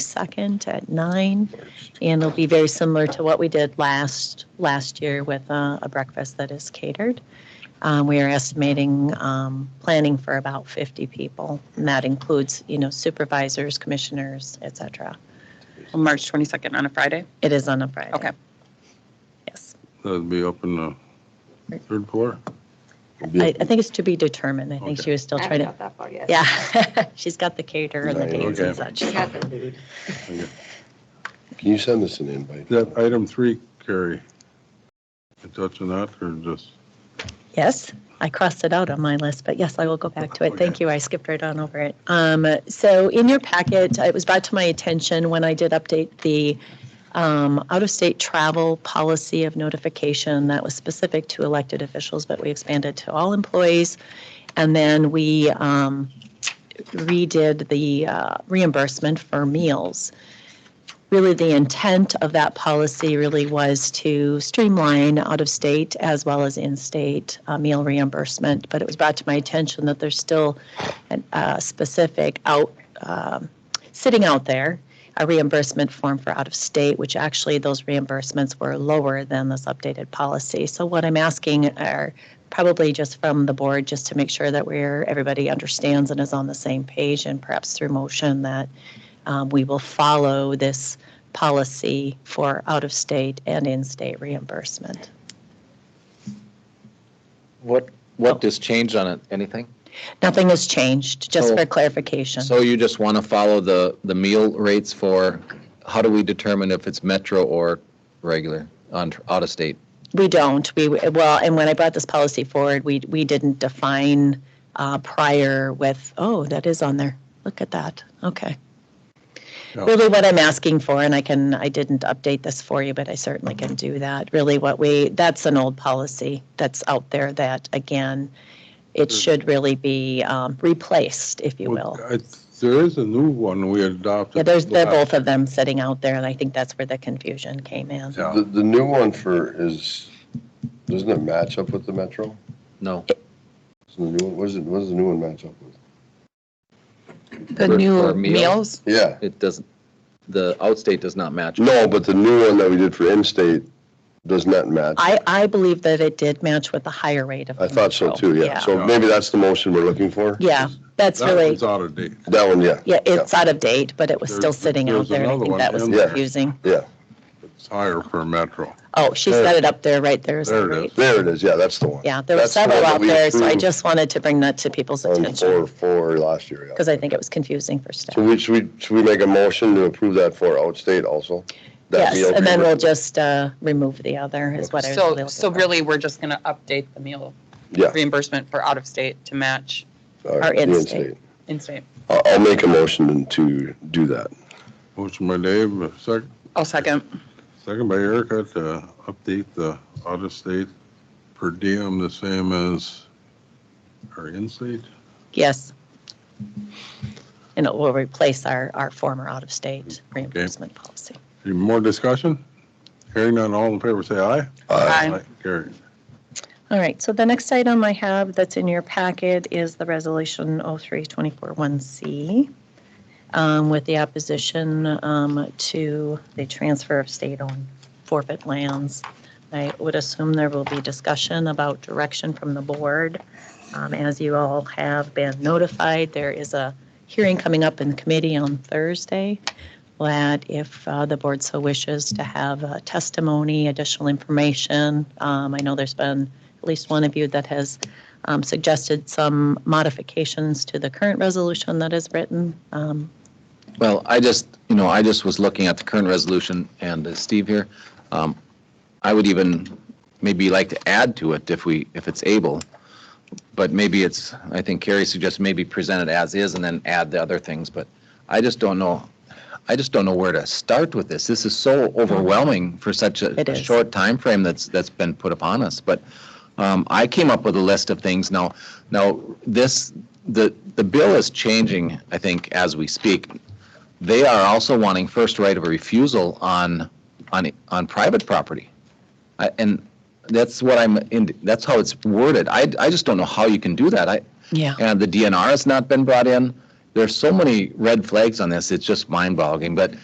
second at nine. And it'll be very similar to what we did last, last year with uh, a breakfast that is catered. Um, We are estimating, um, planning for about 50 people. And that includes, you know, supervisors, commissioners, et cetera. On March 22nd on a Friday? It is on a Friday. Okay. Yes. That'd be up in the third floor? I, I think it's to be determined. I think Okay. she was still I trying haven't to, got that far yet. yeah. She's got the caterer and the Right, dates and such. I got the- Can you send us an invite? That item three, Carrie, you touching that or just? Yes, I crossed it out on my list, but yes, I will go back to it. Thank you. I skipped right on over it. Um, so in your packet, uh, it was brought to my attention when I did update the um, out-of-state travel policy of notification that was specific to elected officials, but we expanded to all employees. And then we um, redid the uh, reimbursement for meals really the intent of that policy really was to streamline out-of-state as well as in-state uh, meal reimbursement. But it was brought to my attention that there's still an- a specific out, um, sitting out there, a reimbursement form for out-of-state, which actually those reimbursements were lower than this updated policy. So what I'm asking are probably just from the board, just to make sure that we're, everybody understands and is on the same page and perhaps through motion that um, we will follow this policy for out-of-state and in-state reimbursement. What, what has changed on it? Anything? Nothing has changed, just So- for clarification. So you just want to follow the, the meal rates for, how do we determine if it's metro or regular on, out of state? We don't, we, well, and when I brought this policy forward, we, we didn't define uh, prior with, oh, that is on there. Look at that, okay. Yeah. Really what I'm asking for, and I can, I didn't update this for you, but I certainly can do that. Really what we, that's an old policy that's out there that, again, it should really be um, replaced, if you will. I- There is a new one we adopted. Yeah, there's, they're last- both of them sitting out there, and I think that's where the confusion came in. Yeah, The, the new one for is, doesn't it match up with the Metro? No. Is the new one, what is it, what does the new one match up with? The For- new for meals? meals? Yeah, It doesn't, the outstate does not match. no, but the new one that we did for in-state does not match. I, I believe that it did match with the higher rate of. I thought so control. too, yeah. So maybe that's the motion we're looking for? Yeah, that's That really, one's out of date. That one, yeah, yeah, it's out of date, but it was still There's- sitting out there's there, and I another think one that was in there. confusing. yeah. It's higher for Metro. Oh, she's There. got it up there, right there is the There it rate. is. There it is, yeah, that's the one. Yeah, there were That's the one several that out we there, so I approved just wanted to bring that to people's On four, attention, four last year, yeah. because I think it was confusing for staff. So we, should we, should we make a motion to approve that for outstate also? Yes, That meal and then we'll agreement? just uh, remove the other, is what I was really So, looking so for. really, we're just going to update the meal Yeah. reimbursement for out-of-state to match all right, Our the in-state. in-state. I'll, I'll make a motion to do that. Motion by Dave, a sec, I'll second. second by Erica to update the out-of-state per diem the same as our in-state. Yes. And it will replace our, our former out-of-state reimbursement policy. Any more discussion? Hearing none, all in favor, say aye. Uh, Aye. Carrie. All right, so the next item I have that's in your packet is the Resolution 03241C um, with the opposition um, to the transfer of state-owned forfeit lands. I would assume there will be discussion about direction from the board. Um, As you all have been notified, there is a hearing coming up in committee on Thursday that if uh, the board so wishes to have uh, testimony, additional information, um, I know there's been at least one of you that has um, suggested some modifications to the current resolution that is written. Um, Well, I just, you know, I just was looking at the current resolution and uh, Steve here. um, I would even maybe like to add to it if we, if it's able. But maybe it's, I think Carrie suggests maybe present it as is and then add the other things. But I just don't know, I just don't know where to start with this. This is so overwhelming for such a It a is. short time frame that's, that's been put upon us. But um, I came up with a list of things. Now, now this, the, the bill is changing, I think, as we speak. They are also wanting first right of refusal on, on, on private property. I- And that's what I'm, in- that's how it's worded. I, I just don't know how you can do that. I, Yeah. and the DNR has not been brought in, There's so many red flags on this, it's just mind-boggling, but